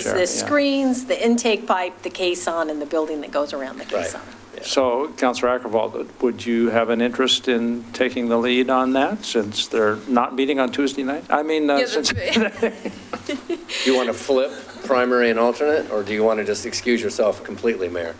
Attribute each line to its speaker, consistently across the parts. Speaker 1: It's
Speaker 2: Sure, yeah.
Speaker 1: the screens, the intake pipe, the caisson, and the building that goes around the caisson.
Speaker 2: So, Counselor Ackervall, would you have an interest in taking the lead on that, since they're not meeting on Tuesday night? I mean, uh,
Speaker 3: Yeah,
Speaker 2: since,
Speaker 3: that's right.
Speaker 4: Do you want to flip primary and alternate, or do you want to just excuse yourself completely, Mayor?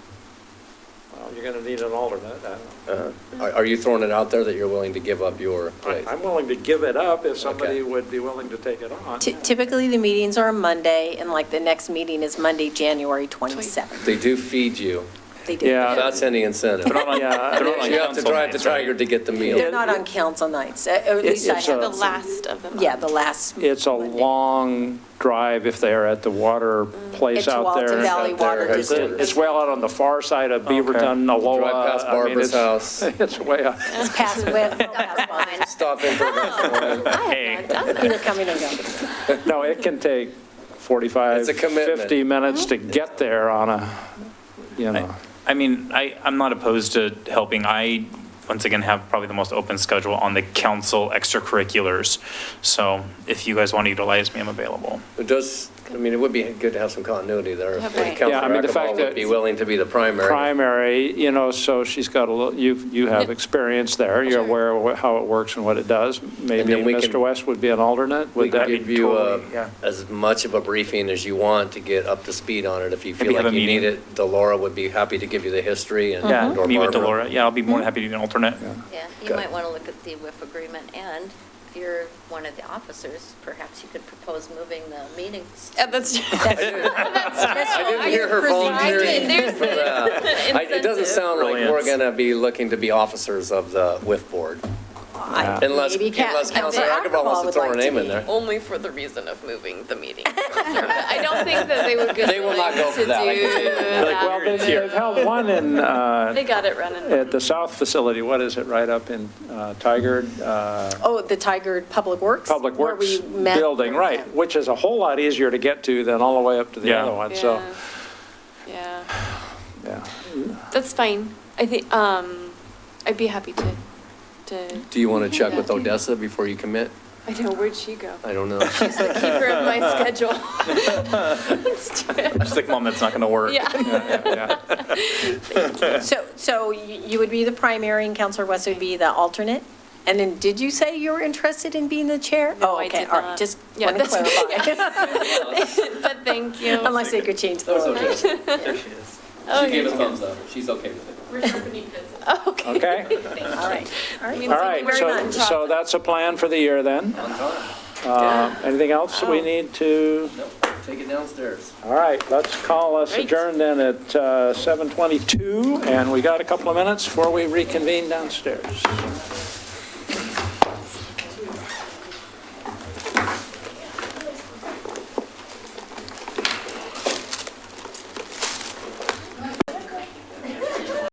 Speaker 2: Well, you're going to need an alternate. I don't-
Speaker 4: Uh, Are are you throwing it out there that you're willing to give up your
Speaker 2: I-
Speaker 4: place?
Speaker 2: I'm willing to give it up if somebody
Speaker 4: Okay.
Speaker 2: would be willing to take it on.
Speaker 1: Ty- Typically, the meetings are on Monday, and like the next meeting is Monday, January 27th.
Speaker 4: They do feed you,
Speaker 1: They do.
Speaker 2: Yeah.
Speaker 4: that's any incentive.
Speaker 5: They're not on-
Speaker 2: Yeah,
Speaker 5: they're not on
Speaker 4: You have to
Speaker 5: council
Speaker 4: drive the
Speaker 5: nights, right?
Speaker 4: tiger to get the
Speaker 1: They're
Speaker 4: meal.
Speaker 1: not on council nights, Uh, or at least I
Speaker 2: it's
Speaker 1: have
Speaker 2: a-
Speaker 3: The last of them.
Speaker 1: Yeah, the last.
Speaker 2: It's a
Speaker 1: Monday.
Speaker 2: long drive if they're at the water place
Speaker 1: It's
Speaker 2: out there.
Speaker 1: Walton Valley
Speaker 4: Out there,
Speaker 1: Water
Speaker 4: has
Speaker 1: District.
Speaker 2: It's well out on the far side of Beaverton, Aloha.
Speaker 4: Drive past
Speaker 2: Oh, uh, I mean,
Speaker 4: Barbara's
Speaker 2: it's-
Speaker 4: house.
Speaker 2: It's way out.
Speaker 1: It's past, well, past Walton.
Speaker 4: Stop in for a glass of wine.
Speaker 3: I have not done
Speaker 1: Either
Speaker 3: that.
Speaker 1: coming or going.
Speaker 2: No, it can take 45,
Speaker 4: It's a commitment.
Speaker 2: 50 minutes to get there on a, you know.
Speaker 5: I mean, I, I'm not opposed to helping. I, once again, have probably the most open schedule on the council extracurriculars. So if you guys want to utilize me, I'm available.
Speaker 4: It does, I mean, it would be good to have some continuity there. If
Speaker 3: Right.
Speaker 2: Yeah, I
Speaker 4: Counselor
Speaker 2: mean, the
Speaker 4: Akeball
Speaker 2: fact
Speaker 4: would
Speaker 2: that-
Speaker 4: be willing to be the primary.
Speaker 2: primary, you know, so she's got a little, you, you have
Speaker 3: Yeah.
Speaker 2: experience there, you're
Speaker 3: Sure.
Speaker 2: aware of how it works and what it does. Maybe
Speaker 4: then we can-
Speaker 2: Mr. West would be an alternate,
Speaker 4: We
Speaker 2: would
Speaker 4: can
Speaker 2: that?
Speaker 4: give
Speaker 2: be
Speaker 4: you uh,
Speaker 2: totally- yeah.
Speaker 4: as much of a briefing as you want to get up to speed on it. If you feel
Speaker 5: Maybe have
Speaker 4: like
Speaker 5: a
Speaker 4: you need
Speaker 5: meeting.
Speaker 4: it, Delora would be happy to give you the history and.
Speaker 2: Yeah,
Speaker 4: or
Speaker 5: Meet with
Speaker 4: Mm-hmm. Barbara.
Speaker 5: Delora. Yeah, I'll be more than happy to be an alternate.
Speaker 6: Yeah, you
Speaker 4: Good.
Speaker 6: might want to look at the WIF agreement, and if you're one of the officers, perhaps you could propose moving the meetings.
Speaker 3: Uh, That's,
Speaker 4: I didn't hear her volunteering. for that. I- It doesn't sound like we're
Speaker 5: Brilliant.
Speaker 4: going to be looking to be officers of the WIF board.
Speaker 1: I-
Speaker 4: Unless,
Speaker 1: maybe Ca-
Speaker 4: unless Counselor
Speaker 1: Counselor
Speaker 4: Akeball
Speaker 1: Akeball
Speaker 4: wants to
Speaker 1: would
Speaker 4: throw her
Speaker 1: like to
Speaker 4: name in
Speaker 1: be.
Speaker 4: there.
Speaker 3: only for the reason of moving the meeting. I don't think that they would.
Speaker 4: They will not go for that, I can tell you that.
Speaker 2: Well, they- they've held one in, uh,
Speaker 3: They got it running.
Speaker 2: at the south facility, what is it, right up in uh, Tigard, uh,
Speaker 1: Oh, the Tiger Public Works?
Speaker 2: Public
Speaker 1: where
Speaker 2: Works
Speaker 1: we met.
Speaker 2: building, right, which is a whole lot easier to get to than all the way up to the
Speaker 5: Yeah.
Speaker 2: other one, so,
Speaker 3: Yeah,
Speaker 2: yeah.
Speaker 3: that's fine. I think, um, I'd be happy to, to,
Speaker 4: Do you want to check with Odessa before you commit?
Speaker 3: I know, where'd she go?
Speaker 4: I don't know.
Speaker 3: She's the keeper of my schedule. Let's do it.
Speaker 5: Just like, mom, that's not going to work.
Speaker 3: Yeah,
Speaker 2: Yeah.
Speaker 1: So, so you you would be the primary and Counselor West would be the alternate? And then, did you say you were interested in being the chair?
Speaker 3: No,
Speaker 1: Oh,
Speaker 3: I
Speaker 1: okay,
Speaker 3: did
Speaker 1: all right,
Speaker 3: not.
Speaker 1: Just
Speaker 3: Yeah,
Speaker 1: want to
Speaker 3: that's-
Speaker 1: clarify.
Speaker 3: but thank you.
Speaker 1: Unless they could change the order.
Speaker 3: Oh,
Speaker 4: a
Speaker 3: you're-
Speaker 4: thumbs up. She's okay with it.
Speaker 3: Okay.
Speaker 2: Okay?
Speaker 1: All right, all right.
Speaker 3: Means
Speaker 2: All
Speaker 3: Thank
Speaker 2: right,
Speaker 3: you very
Speaker 2: so,
Speaker 3: much.
Speaker 2: so that's a plan for the year then. Uh, Anything else we
Speaker 3: Oh.
Speaker 2: need to,
Speaker 4: Take it downstairs.
Speaker 2: all right, let's call us
Speaker 3: Great.
Speaker 2: adjourned then at uh, 7:22, and we got a couple of minutes before we reconvene downstairs.